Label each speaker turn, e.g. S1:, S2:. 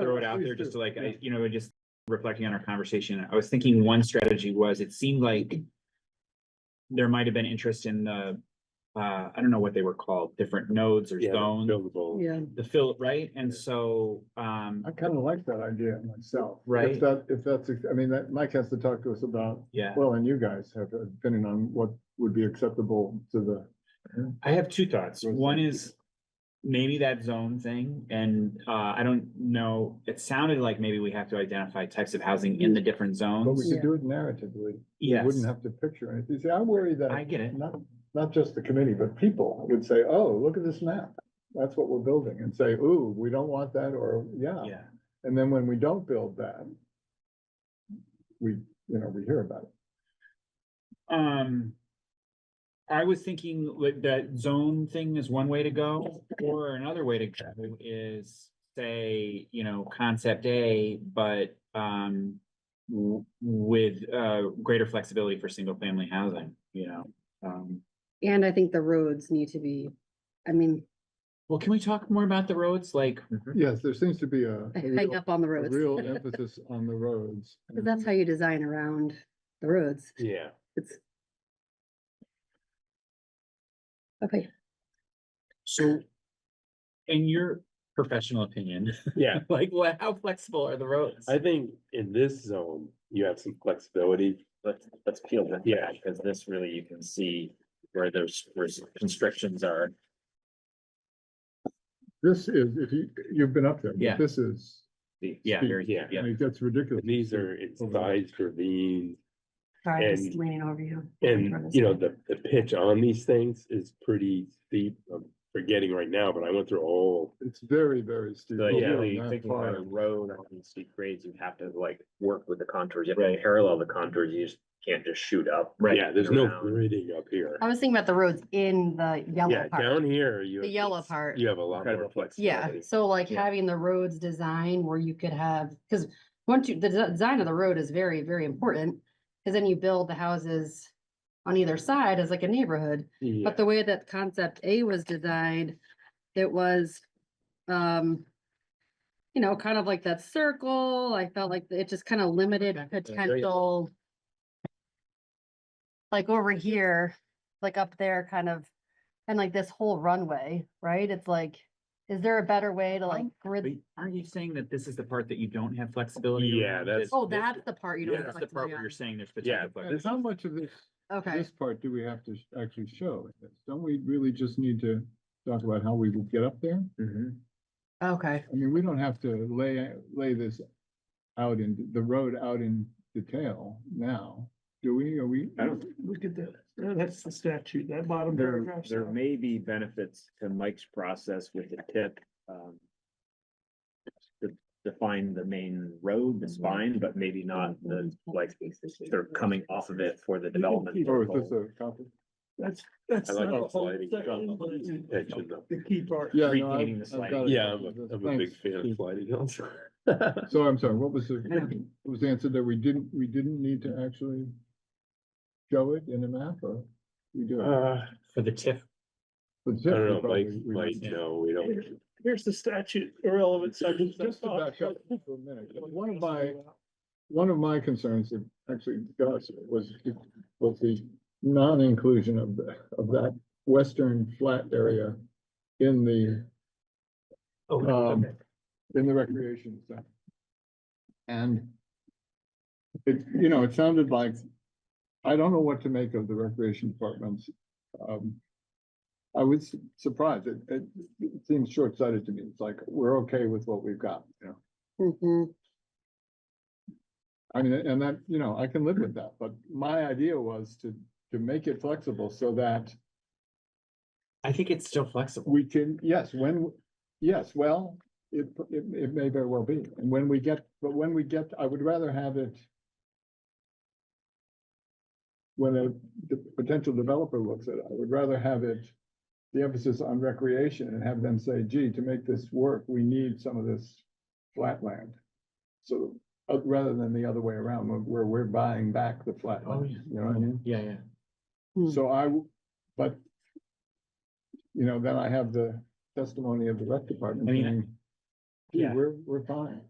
S1: throw it out there just to like, I, you know, just reflecting on our conversation, I was thinking one strategy was, it seemed like there might have been interest in the, uh, I don't know what they were called, different nodes or
S2: Yeah,
S1: zones,
S2: Buildable.
S3: Yeah,
S1: the fill, right? And so, um,
S4: I kind of like that idea myself.
S1: Right.
S4: If that, if that's, I mean, that, Mike has to talk to us about,
S1: yeah,
S4: well, and you guys have, uh, depending on what would be acceptable to the.
S1: I have two thoughts. One is maybe that zone thing, and, uh, I don't know, it sounded like maybe we have to identify types of housing in the different
S4: But we
S1: zones.
S4: could do it narratively. We
S1: Yes,
S4: Wouldn't have to picture it. You see, I worry
S1: I
S4: that
S1: get it.
S4: not, not just the committee, but people would say, oh, look at this map. That's what we're building and say, ooh, we don't want that or, yeah.
S1: Yeah,
S4: And then when we don't build that, we, you know, we hear about it.
S1: um. I was thinking like that zone thing is one way to go, or another way to go is say, you know, concept A, but um. w- with uh greater flexibility for single family housing, you know, um.
S3: and I think the roads need to be, I mean,
S1: Well, can we talk more about the roads? Like,
S4: Yes, there seems to be a. a real-
S3: hang up on the
S4: a
S3: roads.
S4: real emphasis on the roads.
S3: 'Cause that's how you design around the roads.
S2: Yeah,
S3: It's. Okay,
S1: so. In your professional opinion,
S2: yeah.
S1: like, what, how flexible are the roads?
S2: I think in this zone, you have some flexibility.
S5: let's, let's peel that.
S2: Yeah.
S5: Because this really, you can see where those, where constrictions are.
S4: This is, if you, you've been up there. but
S1: Yeah.
S4: This is,
S1: Yeah, very, yeah,
S2: Yeah.
S4: I
S1: yeah.
S4: mean, it gets ridiculous.
S2: And These are incised ravines
S3: sorry, I'm just
S2: And-
S3: leaning over you.
S2: and, you know, the, the pitch on these things is pretty steep. I'm forgetting right now, but I went through a whole.
S4: It's very, very steep.
S6: Oh,
S4: Oh,
S2: So,
S4: hill
S2: yeah,
S4: on
S5: Really
S4: that
S5: thinking about a
S4: part.
S5: road on these steep grades, you have to like work with the contours, you have to parallel the contours, you just can't just shoot up.
S1: Right.
S2: Yeah, there's no
S5: Around.
S2: grading up here.
S3: I was thinking about the roads in Oh, the
S2: Yeah,
S3: yellow part.
S2: down here, you.
S3: The yellow part.
S2: You have a lot more
S5: Incredible.
S3: Yeah,
S2: flexibility.
S3: so like
S1: Yeah.
S3: having the roads designed where you could have, because once you, the de- design of the road is very, very important. Because then you build the houses on either side as like a neighborhood.
S2: Yeah,
S3: But the way that concept A was designed, it was, um, you know, kind of like that circle. I felt like it just kind of limited potential. Like over here, like up there kind of, and like this whole runway, right? It's like, is there a better way to like
S1: But
S3: grid?
S1: aren't you saying that this is the part that you don't have flexibility?
S2: Yeah,
S1: around?
S2: that's-
S3: Oh,
S2: this-
S3: that's the part you
S2: yeah,
S3: don't. have
S1: That's the part
S3: flexibility
S1: where
S3: on.
S1: you're saying there's
S2: Yeah.
S1: potential.
S4: And how much of this,
S3: Okay,
S4: this part do we have to sh- actually show? Don't we really just need to talk about how we would get up there?
S1: Mhm.
S3: okay.
S4: I mean, we don't have to lay, lay this out in, the road out in detail now, do we? Are we?
S6: I don't, look at that, Uh, that's the statute, that bottom
S5: There,
S6: paragraph.
S5: there may be benefits to Mike's process with the tip. um, To define the main
S6: Mm-hmm.
S5: road, the spine, but maybe not
S1: uh,
S5: the, like, they're coming off of it for the development.
S4: Or is this a copy?
S6: That's, that's
S2: I like
S6: not
S2: the
S6: the whole
S2: sliding
S6: section,
S2: scale.
S6: but it's
S2: Pitching up.
S6: the key part.
S4: Yeah, no, I've-
S1: Recreating the
S4: I've
S1: slide.
S4: got it.
S2: Yeah, I'm a, I'm a big
S4: Thanks.
S2: fan of sliding hills.
S4: So I'm sorry, what was the, what was the answer that we didn't, we didn't need to actually show it in a map or we do? it?
S2: Uh,
S1: For the TIF,
S4: But
S2: I
S4: zip,
S2: don't
S4: we
S2: know, Mike,
S4: probably- we
S2: Mike,
S4: would-
S2: no, we don't.
S6: Here's the statute, irrelevant section.
S4: Just to back up for a minute, one of my, one of my concerns that actually Gus was, was the non-inclusion of the, of that western flat area in the
S1: oh,
S4: Um,
S1: okay.
S4: in the recreation zone. And it, you know, it sounded like, I don't know what to make of the recreation departments. Um, I was surprised. It, it it seems short-sighted to me. It's like, we're okay with what we've got, you know?
S3: Mhm.
S4: I mean, and that, you know, I can live with that, but my idea was to, to make it flexible so that
S1: I think it's still flexible.
S4: we can, yes, when, yes, well, it, it, it may very well be. And when we get, but when we get, I would rather have it when a d- potential developer looks at it, I would rather have it, the emphasis on recreation and have them say, gee, to make this work, we need some of this flat land. So, uh, rather than the other way around, where- where we're buying back the flat
S1: Oh,
S4: land,
S1: yeah.
S4: you know what I mean?
S1: Yeah, yeah.
S3: Hmm.
S4: So I, w- but, you know, then I have the testimony of the rec department.
S1: I mean,
S4: saying,
S1: Yeah.
S4: We're, we're fine.